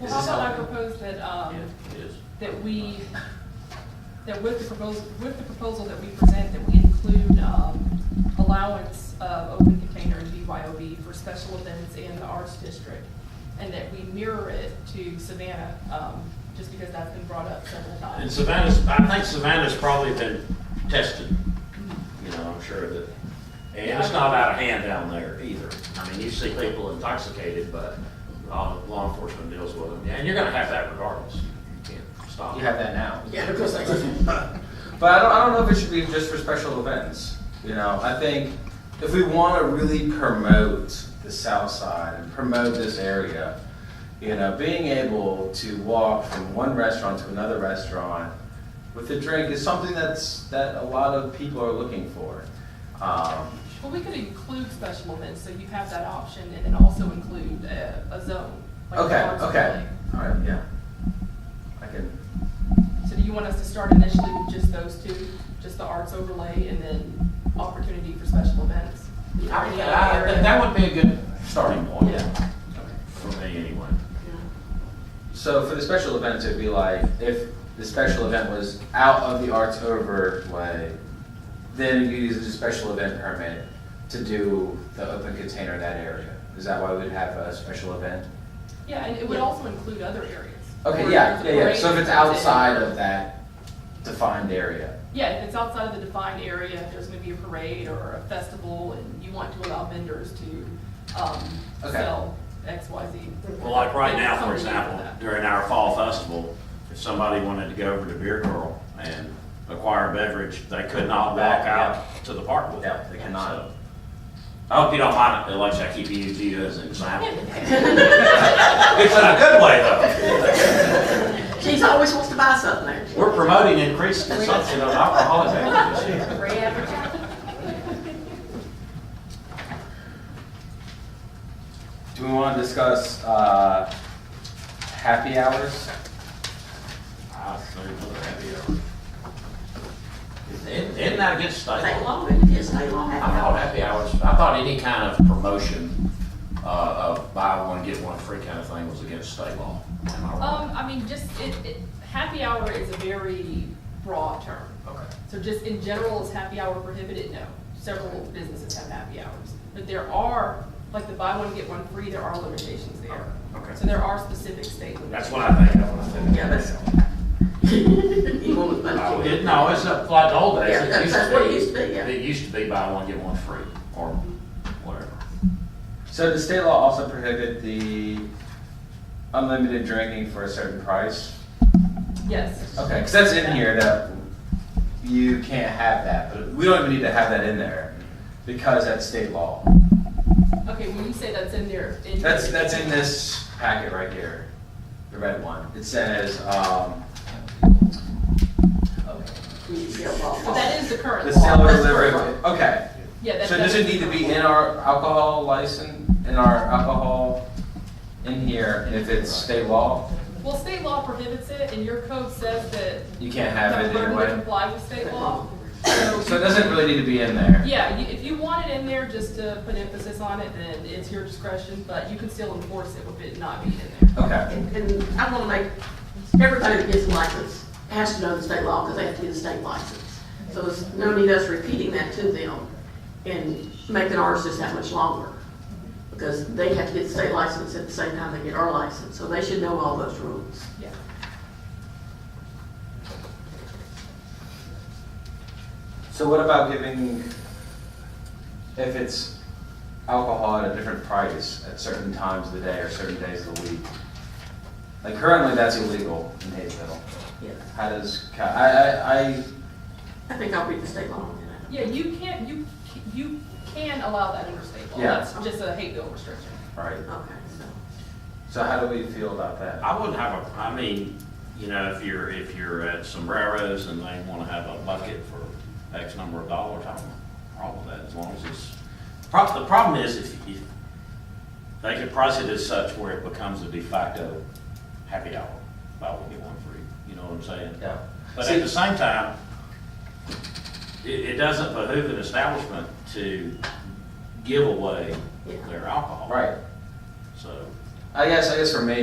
Well, how about I propose that, um, It is. that we, that with the proposal, with the proposal that we present, that we include, um, allowance of open container and BYOB for special events in the arts district, and that we mirror it to Savannah, um, just because that's been brought up several And times. Savannah's, I think Savannah's probably been tested, you know, I'm sure that, and it's not out of hand down there either. I mean, you see people intoxicated, but law law enforcement deals with them, and you're gonna have that regardless. You can't stop. You have that now. Yeah, of course I can. But I don't, I don't know if it should be just for special events. You know, I think if we want to really promote the South Side and promote this area, you know, being able to walk from one restaurant to another restaurant with a drink is something that's that a lot of people are looking for. Um, Well, we could include special events, so you have that option, and then also include uh, a, a zone. like an okay, arts okay, overlay. all right, yeah. I can. So do you want us to start initially with just those two, just the arts overlay and then opportunity for special events? I mean, I- that- That would be a good starting point. Yeah. For me, anyway. So for the special events, it'd be like if the special event was out of the arts overlay, then you use the special event permit to do the open container in that area. Is that why we'd have a special event? Yeah, and it would also include other areas. Okay, Or yeah, there's a yeah, yeah. parade So if it's that's in- outside of that defined area. Yeah, if it's outside of the defined area, if there's gonna be a parade or a festival and you want to allow vendors to, um, Okay. sell X, Y, Z. Well, like right now, for Something like example, that. during our fall festival, if somebody wanted to go over to Beer Girl and acquire a beverage, they could not walk Back, yeah. out to the park with it. Yeah, they cannot. So, I hope you don't mind, it, Alexa, I keep using you as an example. It's in a good way, though. She's always wants to buy something there. We're promoting increased consumption of alcoholic beverages. Free advertising. Do we want to discuss uh, happy hours? I assume we're happy hour. Isn't isn't that a good statement? Stay long, it is, stay long. I thought happy hours, I thought any kind of promotion uh, of buy one, get one free kind of thing was against state law. Am I Um, wrong? I mean, just, it, it, happy hour is a very broad term. Okay. So just in general, is happy hour prohibited? No. Several businesses have happy hours. But there are, like the buy one, get one free, there are limitations there. Okay. So there are specific state limitations. That's what I think of when I think. Yeah, of that's. it. You want to Oh, bunch it- it. No, it's not like the old days. Yeah, It that's- used to that's what it be- used to be, yeah. It used to be buy one, get one free, or whatever. So does state law also prohibit the unlimited drinking for a certain price? Yes. Okay, because that's in here that you can't have that, but we don't even need to have that in there because that's state law. Okay, when you say that's in there. in- That's, that's in this packet right here, the red one. It says, um, But that is the current the law. sale or that's delivery, correct. okay. Yeah, that- So does it need to be in our alcohol license, in our alcohol, in here, and if it's state law, Well, state law prohibits it and your code says that. you can't have it the burden to anyway? comply with state law. So it doesn't really need to be in there? Yeah, you- if you want it in there just to put emphasis on it, then it's your discretion, but you can still enforce it with it not being in there. Okay, And, and I want to make, everybody that gets a license has to know the state law because they have to get a state license. So it's no need us repeating that to them and making ours just that much longer. Because they have to get the state license at the same time they get our license, so they should know all those rules. Yeah. so what about giving, if it's alcohol at a different price at certain times of the day or certain days of the week? Like currently, that's illegal in Hayesville. Yes. How does, ca- I, I, I, I think I'll read the state law on that. Yeah, you can't, you, c- you can allow that under state law. Yeah. That's just a hate bill restriction. all right, Okay, so. so how do we feel about that? I wouldn't have a, I mean, you know, if you're, if you're at Sombreros and they wanna have a bucket for X number of dollars, I don't have a problem with that, as long as it's, prob, the problem is if you, they could price it as such where it becomes a de facto happy hour, buy one, get one free, you know what I'm saying? Yeah. But See- at the same time, it, it doesn't behoove an establishment to give away Yeah. their alcohol. Right, So. I guess, I guess for me,